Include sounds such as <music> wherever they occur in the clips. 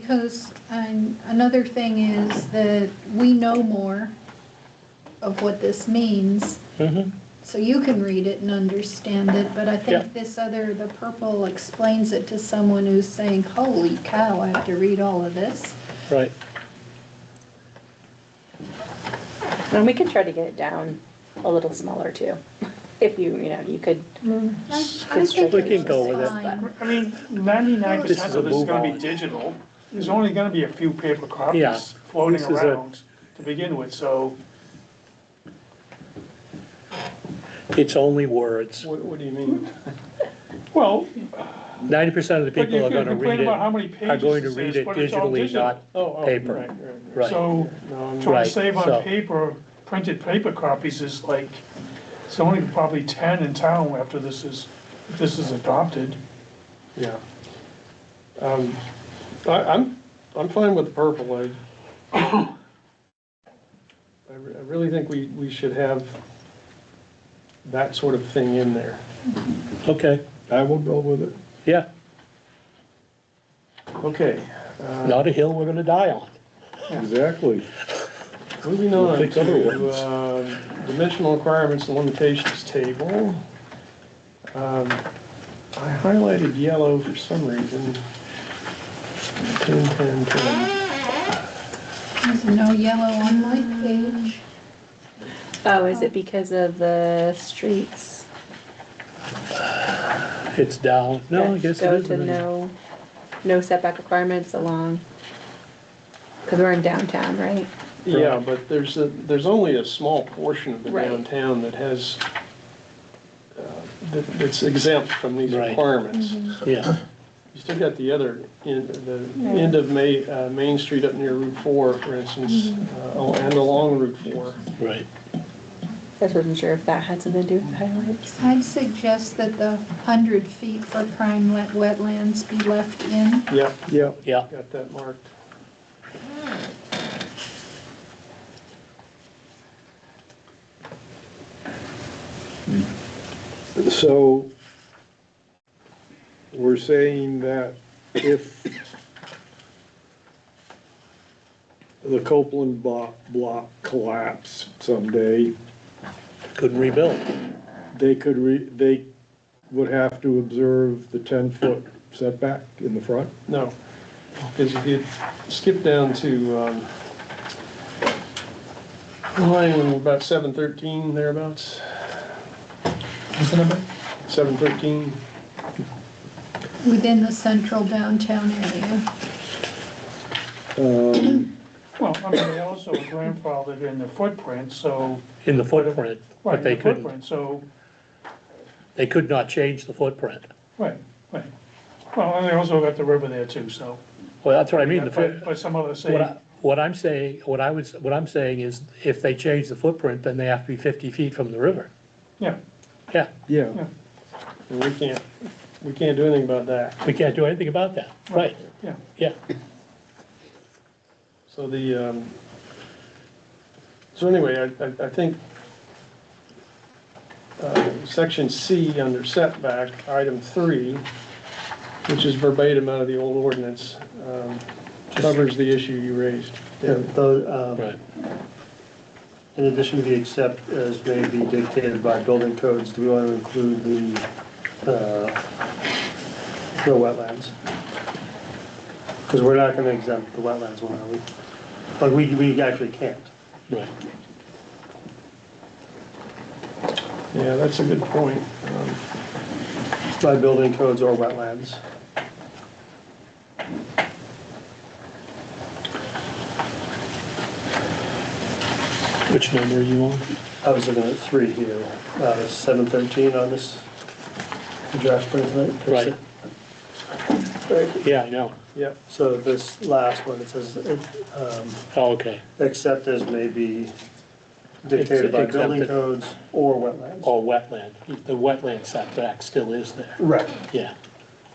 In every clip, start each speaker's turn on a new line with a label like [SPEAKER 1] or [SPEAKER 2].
[SPEAKER 1] Because um, another thing is that we know more of what this means,
[SPEAKER 2] Mhm.
[SPEAKER 1] so you can read it and understand it, but I
[SPEAKER 2] Yeah.
[SPEAKER 1] think this other, the purple explains it to someone who's saying, holy cow, I have to read all of this.
[SPEAKER 2] Right,
[SPEAKER 3] And we could try to get it down a little smaller too. <laughs> If you, you know, you could,
[SPEAKER 1] I
[SPEAKER 3] think
[SPEAKER 2] we can go with it.
[SPEAKER 4] I mean, ninety-nine
[SPEAKER 2] This is
[SPEAKER 4] percent
[SPEAKER 2] a
[SPEAKER 4] of this is gonna
[SPEAKER 2] move on.
[SPEAKER 4] be digital. There's only gonna be a few paper
[SPEAKER 2] Yeah.
[SPEAKER 4] copies floating
[SPEAKER 2] This is a-
[SPEAKER 4] around to begin with, so.
[SPEAKER 2] it's only words.
[SPEAKER 5] What, what do you mean?
[SPEAKER 4] Well,
[SPEAKER 2] Ninety percent of the
[SPEAKER 4] but you
[SPEAKER 2] people are
[SPEAKER 4] could
[SPEAKER 2] gonna read
[SPEAKER 4] complain
[SPEAKER 2] it,
[SPEAKER 4] about how
[SPEAKER 2] are
[SPEAKER 4] many pages
[SPEAKER 2] going to
[SPEAKER 4] this
[SPEAKER 2] read
[SPEAKER 4] is,
[SPEAKER 2] it
[SPEAKER 4] but it's all
[SPEAKER 2] digitally,
[SPEAKER 4] digital.
[SPEAKER 2] not
[SPEAKER 5] Oh, oh,
[SPEAKER 2] Paper.
[SPEAKER 5] right, right, right.
[SPEAKER 2] Right.
[SPEAKER 4] So
[SPEAKER 5] No, I'm-
[SPEAKER 4] trying
[SPEAKER 2] Right,
[SPEAKER 4] to save
[SPEAKER 2] so-
[SPEAKER 4] on paper, printed paper copies is like, it's only probably ten in town after this is, if this is adopted.
[SPEAKER 5] yeah. Um, I, I'm, I'm fine with the purple, <coughs> I, I re- I really think we, we should have that sort of thing in there.
[SPEAKER 2] okay,
[SPEAKER 6] I will go with it.
[SPEAKER 2] yeah,
[SPEAKER 5] Okay, uh,
[SPEAKER 2] not a hill we're gonna die on.
[SPEAKER 6] Exactly.
[SPEAKER 5] moving on
[SPEAKER 6] Fix other
[SPEAKER 5] to,
[SPEAKER 6] ones.
[SPEAKER 5] uh, dimensional requirements and limitations table. Um, I highlighted yellow for some reason. Ten, ten, ten.
[SPEAKER 1] There's no yellow on my page.
[SPEAKER 3] oh, is it because of the streets?
[SPEAKER 2] It's down, no, I
[SPEAKER 3] that
[SPEAKER 2] guess it
[SPEAKER 3] Go
[SPEAKER 2] is.
[SPEAKER 3] to
[SPEAKER 2] really-
[SPEAKER 3] no, no setback requirements along, because we're in downtown, right?
[SPEAKER 5] Yeah, but there's a, there's only a small portion of the
[SPEAKER 3] Right.
[SPEAKER 5] downtown that has, uh, that- that's exempt from these
[SPEAKER 2] Right.
[SPEAKER 5] requirements.
[SPEAKER 2] Yeah,
[SPEAKER 5] You still got the other, end- the end of Ma, uh, Main Street up near Route 4, for instance, uh, oh, and along Route 4.
[SPEAKER 2] right,
[SPEAKER 3] I just wasn't sure if that had something to do with highlights.
[SPEAKER 1] I'd suggest that the 100 feet for prime wet- wetlands be left in.
[SPEAKER 5] Yep,
[SPEAKER 6] Yeah,
[SPEAKER 2] yeah,
[SPEAKER 5] got that marked.
[SPEAKER 6] so we're saying that if the Copeland block, block collapsed someday,
[SPEAKER 2] couldn't rebuild,
[SPEAKER 6] they could re, they would have to observe the ten-foot setback in the front?
[SPEAKER 5] No, because if you skip down to, um, line about seven thirteen thereabouts. What's the number? Seven thirteen,
[SPEAKER 1] Within the central downtown area.
[SPEAKER 6] Um,
[SPEAKER 4] Well, I mean, they also <laughs> grandfathered in the footprint, so.
[SPEAKER 2] in the footprint,
[SPEAKER 4] right,
[SPEAKER 2] but they
[SPEAKER 4] the
[SPEAKER 2] couldn't,
[SPEAKER 4] footprint, So,
[SPEAKER 2] they could not change the footprint.
[SPEAKER 4] right, right. Well, and they also got the river there too, so.
[SPEAKER 2] Well, that's what I mean, the,
[SPEAKER 4] But,
[SPEAKER 2] foot-
[SPEAKER 4] but some others say,
[SPEAKER 2] what I, what I'm saying, what I was, what I'm saying is, if they change the footprint, then they have to be fifty feet from the river,
[SPEAKER 4] yeah,
[SPEAKER 2] yeah,
[SPEAKER 6] yeah,
[SPEAKER 5] and we can't, we can't do anything about that.
[SPEAKER 2] we can't do anything about that, right,
[SPEAKER 4] yeah,
[SPEAKER 2] yeah,
[SPEAKER 5] So the, um, so anyway, I, I, I think, uh, section C under setback, item three, which is verbatim out of the old ordinance, um, covers the issue you raised.
[SPEAKER 7] Yeah, though, um,
[SPEAKER 2] right,
[SPEAKER 7] in addition to the except as may be dictated by building codes, do we want to include the, uh, the wetlands? Because we're not going to exempt the wetlands one, are we? Like, we, we actually can't.
[SPEAKER 2] right.
[SPEAKER 5] Yeah, that's a good point. Um,
[SPEAKER 7] By building codes or wetlands.
[SPEAKER 2] Which number are you on?
[SPEAKER 7] I was looking at three here, uh, seven thirteen on this draft plan tonight.
[SPEAKER 2] Right.
[SPEAKER 7] Right.
[SPEAKER 2] Yeah, I know,
[SPEAKER 5] Yep,
[SPEAKER 7] So this last one, it says, um,
[SPEAKER 2] oh, okay,
[SPEAKER 7] except as may be dictated by building
[SPEAKER 2] Exempted.
[SPEAKER 7] codes or wetlands.
[SPEAKER 2] or Oh, wetland, the wetland setback still is there,
[SPEAKER 7] Right,
[SPEAKER 2] yeah,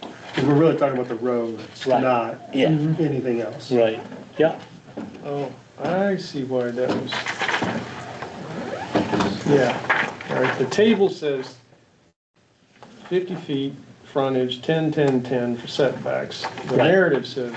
[SPEAKER 7] because we're really talking about the roads,
[SPEAKER 2] Right.
[SPEAKER 7] not
[SPEAKER 2] Yeah.
[SPEAKER 7] anything else.
[SPEAKER 2] right, yeah,
[SPEAKER 5] oh, I see why that was. Yeah, all right, the table says fifty feet, frontage, ten, ten, ten for setbacks. The
[SPEAKER 2] Right.
[SPEAKER 5] narrative says